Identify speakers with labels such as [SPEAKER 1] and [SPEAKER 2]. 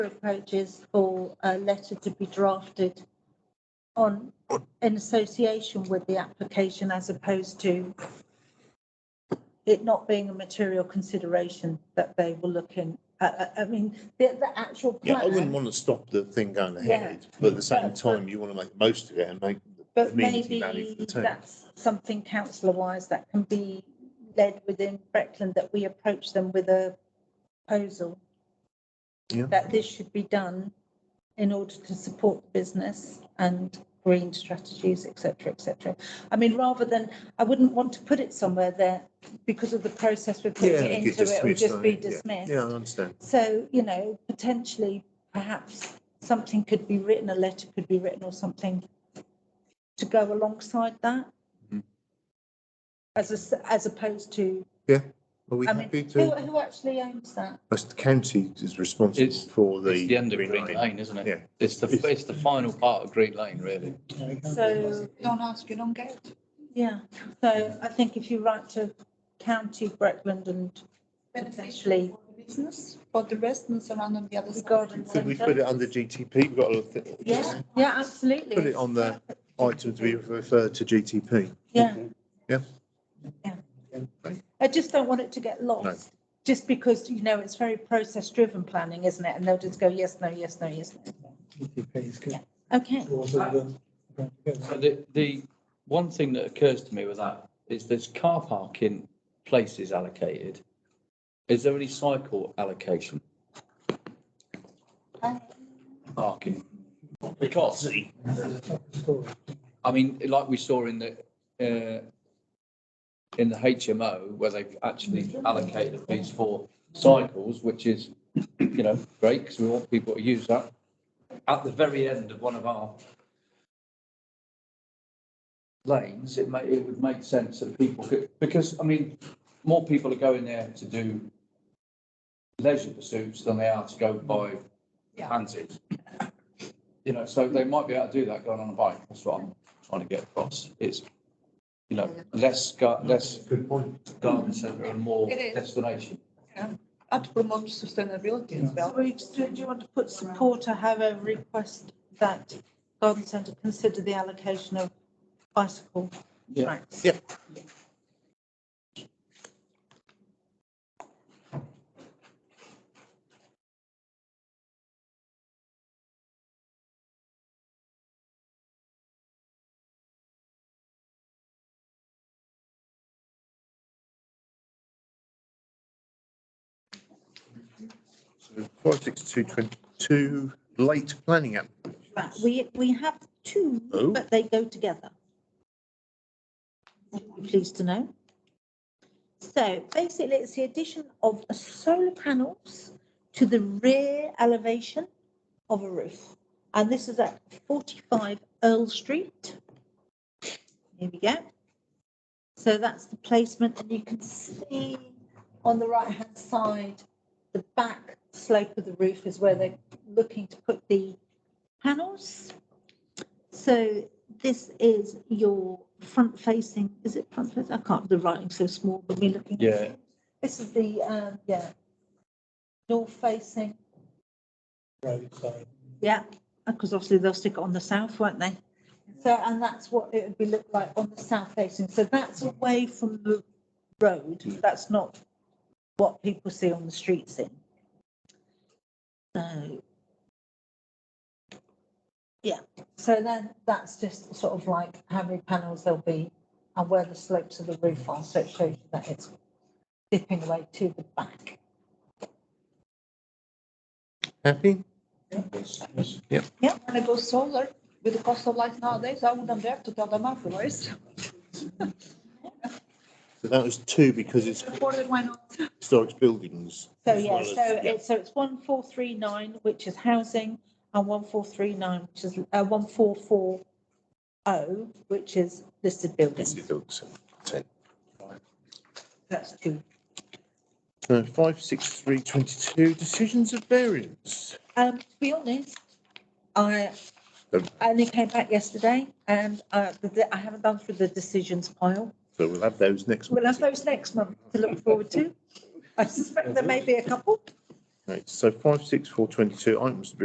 [SPEAKER 1] approaches for a letter to be drafted on, in association with the application as opposed to it not being a material consideration that they were looking, I, I, I mean, the, the actual
[SPEAKER 2] Yeah, I wouldn't
[SPEAKER 1] plan.
[SPEAKER 2] want to stop the thing going
[SPEAKER 1] Yeah.
[SPEAKER 2] ahead, but at the same
[SPEAKER 1] But-
[SPEAKER 2] time, you want to make the most of it and make the
[SPEAKER 1] But
[SPEAKER 2] community value
[SPEAKER 1] maybe
[SPEAKER 2] for the town.
[SPEAKER 1] that's something councillor wise that can be led within Breckland, that we approach them with a proposal.
[SPEAKER 2] Yeah.
[SPEAKER 1] That this should be done in order to support the business and green strategies, et cetera, et cetera. I mean, rather than, I wouldn't want to put it somewhere there because of the process we're putting it
[SPEAKER 2] You
[SPEAKER 1] into,
[SPEAKER 2] get
[SPEAKER 1] it would
[SPEAKER 2] dismissed,
[SPEAKER 1] just be
[SPEAKER 2] don't you? Yeah.
[SPEAKER 1] dismissed.
[SPEAKER 2] Yeah, I understand.
[SPEAKER 1] So, you know, potentially, perhaps something could be written, a letter could be written or something to go alongside that.
[SPEAKER 2] Mhm.
[SPEAKER 1] As a s as opposed to,
[SPEAKER 2] Are we
[SPEAKER 1] I mean,
[SPEAKER 2] happy
[SPEAKER 1] who,
[SPEAKER 2] to,
[SPEAKER 1] who actually owns that?
[SPEAKER 2] that's the county is
[SPEAKER 3] It's-
[SPEAKER 2] responsible for the.
[SPEAKER 3] It's the end of Green
[SPEAKER 2] line.
[SPEAKER 3] Lane, isn't
[SPEAKER 2] Yeah.
[SPEAKER 3] it? It's the, it's the final part of Green Lane, really.
[SPEAKER 1] So,
[SPEAKER 4] Don't ask, you don't get.
[SPEAKER 1] yeah, so I think if you write to County Breckland and Beneficially.
[SPEAKER 4] Beneficially. Business, but the rest and surround on the other side.
[SPEAKER 1] Garden
[SPEAKER 2] Could we put it under GTP? We've got a, th-
[SPEAKER 1] Yeah, yeah, absolutely.
[SPEAKER 2] put it on the item to be referred to GTP.
[SPEAKER 1] Yeah.
[SPEAKER 2] Yeah.
[SPEAKER 1] Yeah. I just don't want it to get lost, just because, you know, it's very process driven planning, isn't it? And they'll just go, yes, no, yes, no, yes, no. Okay,
[SPEAKER 3] So the, the one thing that occurs to me with that is there's car parking places allocated. Is there any cycle allocation? Parking. Because, I mean, like we saw in the, uh, in the HMO where they've actually allocated a piece for cycles, which is, you know, great because we want people to use that. At the very end of one of our lanes, it may, it would make sense that people could, because, I mean, more people are going there to do leisure pursuits than they are to go buy panties. You know, so they might be able to do that going on a bike, that's what I'm trying to get across, it's, you know, less, gar- less
[SPEAKER 2] Good point.
[SPEAKER 3] garden centre and more
[SPEAKER 4] It is.
[SPEAKER 3] destination.
[SPEAKER 4] And to promote sustainability as well.
[SPEAKER 1] well, we just- do you want to put support or have a request that garden centre consider the allocation of bicycle
[SPEAKER 3] Yeah.
[SPEAKER 1] tracks?
[SPEAKER 2] Yeah. Five six two twenty-two, late planning app.
[SPEAKER 1] Right, We, we have two,
[SPEAKER 2] Oh.
[SPEAKER 1] but they go together. You'll be Pleased to know. So basically, it's the addition of a solar panels to the rear elevation of a roof. And this is at 45 Earl Street. Here we go. So that's the placement, and you can see on the right-hand side, the back slope of the roof is where they're looking to put the panels. So this is your front facing, is it front facing? I can't, the writing's so small, but we're looking. at-
[SPEAKER 3] Yeah.
[SPEAKER 1] This is the, um, yeah, north facing, yeah, because obviously they'll stick it on the south, won't they? So, and that's what it would be look like on the south facing. So that's away from the road. That's not what people see on the streets in. So. Yeah, so then that's just sort of like how many panels there'll be and where the slopes of the roof are. So it shows you that it's dipping away to the back.
[SPEAKER 2] Happy?
[SPEAKER 4] Yeah. When I go solar, with the cost of life nowadays, I wouldn't dare to tell them otherwise.
[SPEAKER 2] So that was two because it's
[SPEAKER 4] Supported, why not?
[SPEAKER 2] historic buildings.
[SPEAKER 1] So
[SPEAKER 2] as
[SPEAKER 1] yeah,
[SPEAKER 2] well
[SPEAKER 1] so
[SPEAKER 2] as- yeah.
[SPEAKER 1] it's, so it's one four three nine, which is housing, and one four three nine, which is, uh, one four four oh, which is listed buildings.
[SPEAKER 2] Listed buildings, ten.
[SPEAKER 1] That's two.
[SPEAKER 2] So five six three twenty-two, decisions of variance.
[SPEAKER 1] Um, to be honest, I
[SPEAKER 2] Um.
[SPEAKER 1] I only came back yesterday and, uh, the- the- I haven't done through the decisions pile.
[SPEAKER 2] So we'll have those next.
[SPEAKER 1] We'll have
[SPEAKER 2] meeting.
[SPEAKER 1] those next month to look forward to. I suspect there may be a couple.
[SPEAKER 2] Okay, so five, six, four, twenty-two items to be